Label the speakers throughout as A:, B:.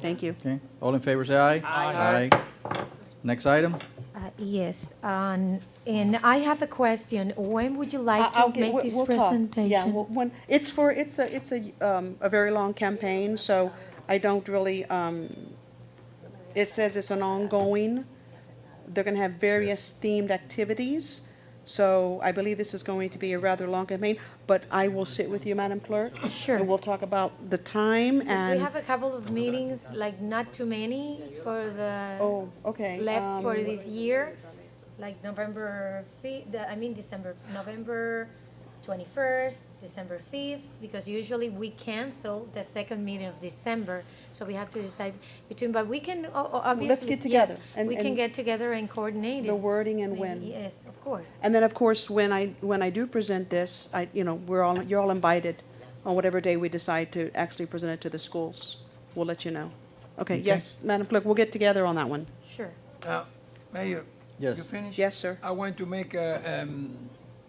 A: Thank you.
B: Okay, all in favor, say aye. Aye. Next item?
C: Uh, Yes, um, and I have a question. When would you like
A: I'll
C: to
A: get-
C: make
A: we'll-
C: this
A: we'll talk. Yeah,
C: presentation?
A: well, when, it's for, it's a, it's a, um, a very long campaign, so I don't really, um, it says it's an ongoing, they're gonna have various themed activities, so I believe this is going to be a rather long campaign, but I will sit with you, Madam Clerk.
C: Sure.
A: And we'll talk about the time
C: We
A: and,
C: have a couple of meetings, like not too many for the,
A: oh, okay.
C: left for
A: um,
C: this year, like November 5th, I mean December, November 21st, December 5th, because usually we cancel the second meeting of December, so we have to decide between, but we can, o- o- obviously.
A: get
C: yes,
A: together and-
C: We can
A: and
C: get together and coordinate.
A: The
C: it.
A: wording and
C: Maybe,
A: when.
C: Yes, of course.
A: And then, of course, when I, when I do present this, I, you know, we're all, you're all invited on whatever day we decide to actually present it to the schools. We'll let you know. Okay, yes, Madam Clerk, we'll get together on that one.
C: Sure.
D: Now, Uh, Mayor?
B: Yes.
D: You finished?
A: Yes, sir.
D: I want to make a, um,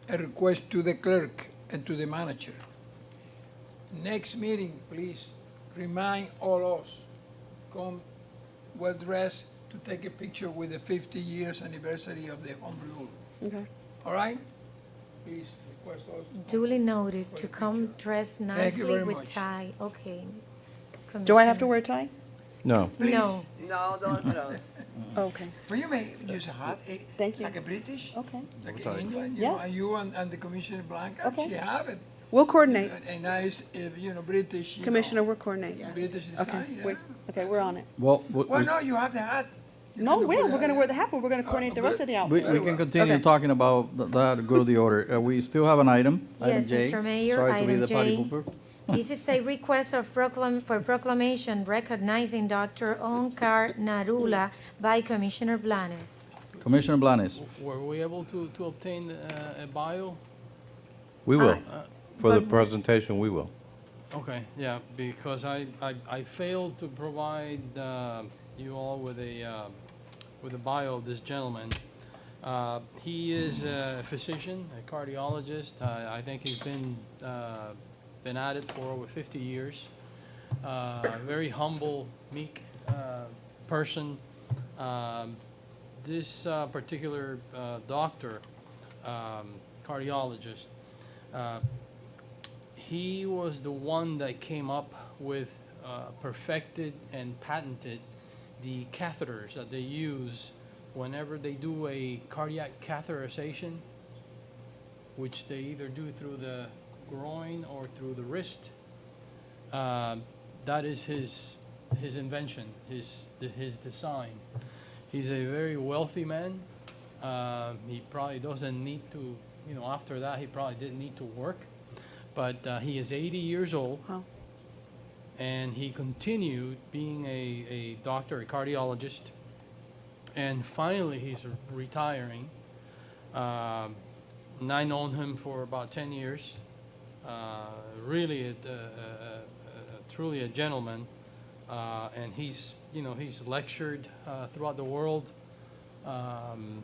D: a request to the clerk and to the manager. Next meeting, please remind all us, come well dressed to take a picture with the fifty years anniversary of the home rule.
A: Okay.
D: All right? Please request us.
C: Duly noted to come dressed
D: you
C: nicely
D: very
C: with
D: much.
C: tie. Okay.
A: Do I have to
C: Commissioner.
A: wear a tie?
E: No.
C: No.
F: No, don't those.
A: Oh, Okay,
D: Will you make use a hat? eh,
A: Thank you.
D: Like a British?
A: okay.
D: Like in England, you know,
A: Yes.
D: and you and, and the Commissioner Blanca,
A: Okay.
D: she have it.
A: We'll coordinate.
D: A- A nice, eh, you know, British, you know.
A: Commissioner, we'll coordinate.
D: British
A: Okay,
D: design, yeah.
A: we're, okay, we're on it.
B: Well, we-
D: Well, no, you have the hat.
A: No, we're, we're gonna wear the hat, but we're gonna coordinate the rest of the
B: we,
A: outfit.
B: we can continue
A: Okay.
B: talking about th- that, go to the order. Uh, We still have an item, item
C: Yes,
B: J.
C: Mr. Mayor,
B: Sorry to be
C: item
B: the party
C: J.
B: pooper.
C: This is a request of proclam, for proclamation recognizing Dr. Onkar Narula by Commissioner Blanes.
B: Commissioner Blanes,
G: Were we able to, to obtain uh, a bio?
E: We will. For the
C: but-
E: presentation, we will.
G: Okay, yeah, because I, I, I failed to provide uh, you all with a, uh, with a bio of this gentleman. Uh, He is a physician, a cardiologist. I I think he's been, uh, been at it for over 50 years. Uh, Very humble, meek uh, person. Um, This uh, particular uh, doctor, um, cardiologist, uh, he was the one that came up with, uh, perfected and patented the catheters that they use whenever they do a cardiac catheterization, which they either do through the groin or through the wrist. Um, that is his his invention, his his design. He's a very wealthy man. Um, he probably doesn't need to, you know, after that he probably didn't need to work, but uh, he is 80 years old,
A: Wow.
G: and he continued being a, a doctor, a cardiologist, and finally he's re- retiring. Um, and I known him for about 10 years. Uh, really, a, a, a, a, truly a gentleman. Uh, and he's, you know, he's lectured uh, throughout the world, um,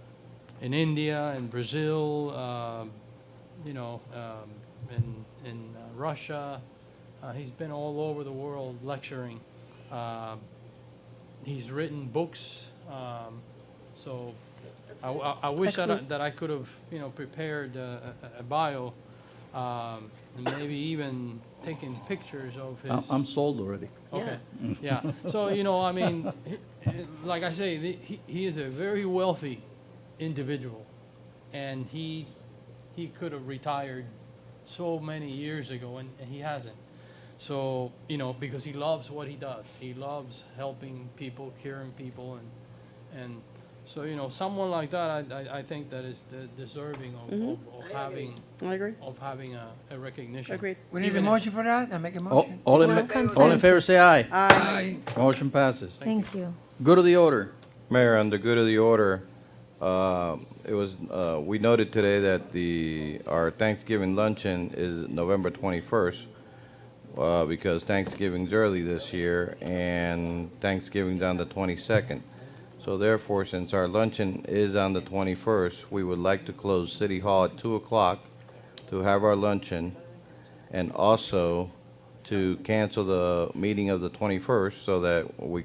G: in India, in Brazil, um, you know, um, in, in uh, Russia. Uh, he's been all over the world lecturing. Uh, he's written books. Um, so I, I- I wish that I,
A: Excellent.
G: that I could have, you know, prepared uh, a, a bio um, and maybe even taken pictures of his.
B: I- I'm sold already.
G: Okay, yeah. So, you know, I mean, he- eh, like I say, the- he, he is a very wealthy individual. And he, he could have retired so many years ago and, and he hasn't. So, you know, because he loves what he does. He loves helping people, curing people and, and so, you know, someone like that, I, I, I think that is de- deserving of, of of having,
A: Mm-hmm. I agree,
G: of having a, a recognition.
A: agreed.
D: We need a
G: Even if- Oh.
D: motion for that? I make a
B: All,
D: motion?
B: all in, all in favor, say aye.
D: Aye.
B: Motion passes.
C: Thank you.
B: Go to the order.
E: Mayor, under good of the order, uh, it was, uh, we noted today that the, our Thanksgiving luncheon is November 21st, uh, because Thanksgiving's early this year, and Thanksgiving's on the 22nd. So therefore, since our luncheon is on the 21st, we would like to close City Hall at 2 o'clock to have our luncheon, and also to cancel the meeting of the 21st so that we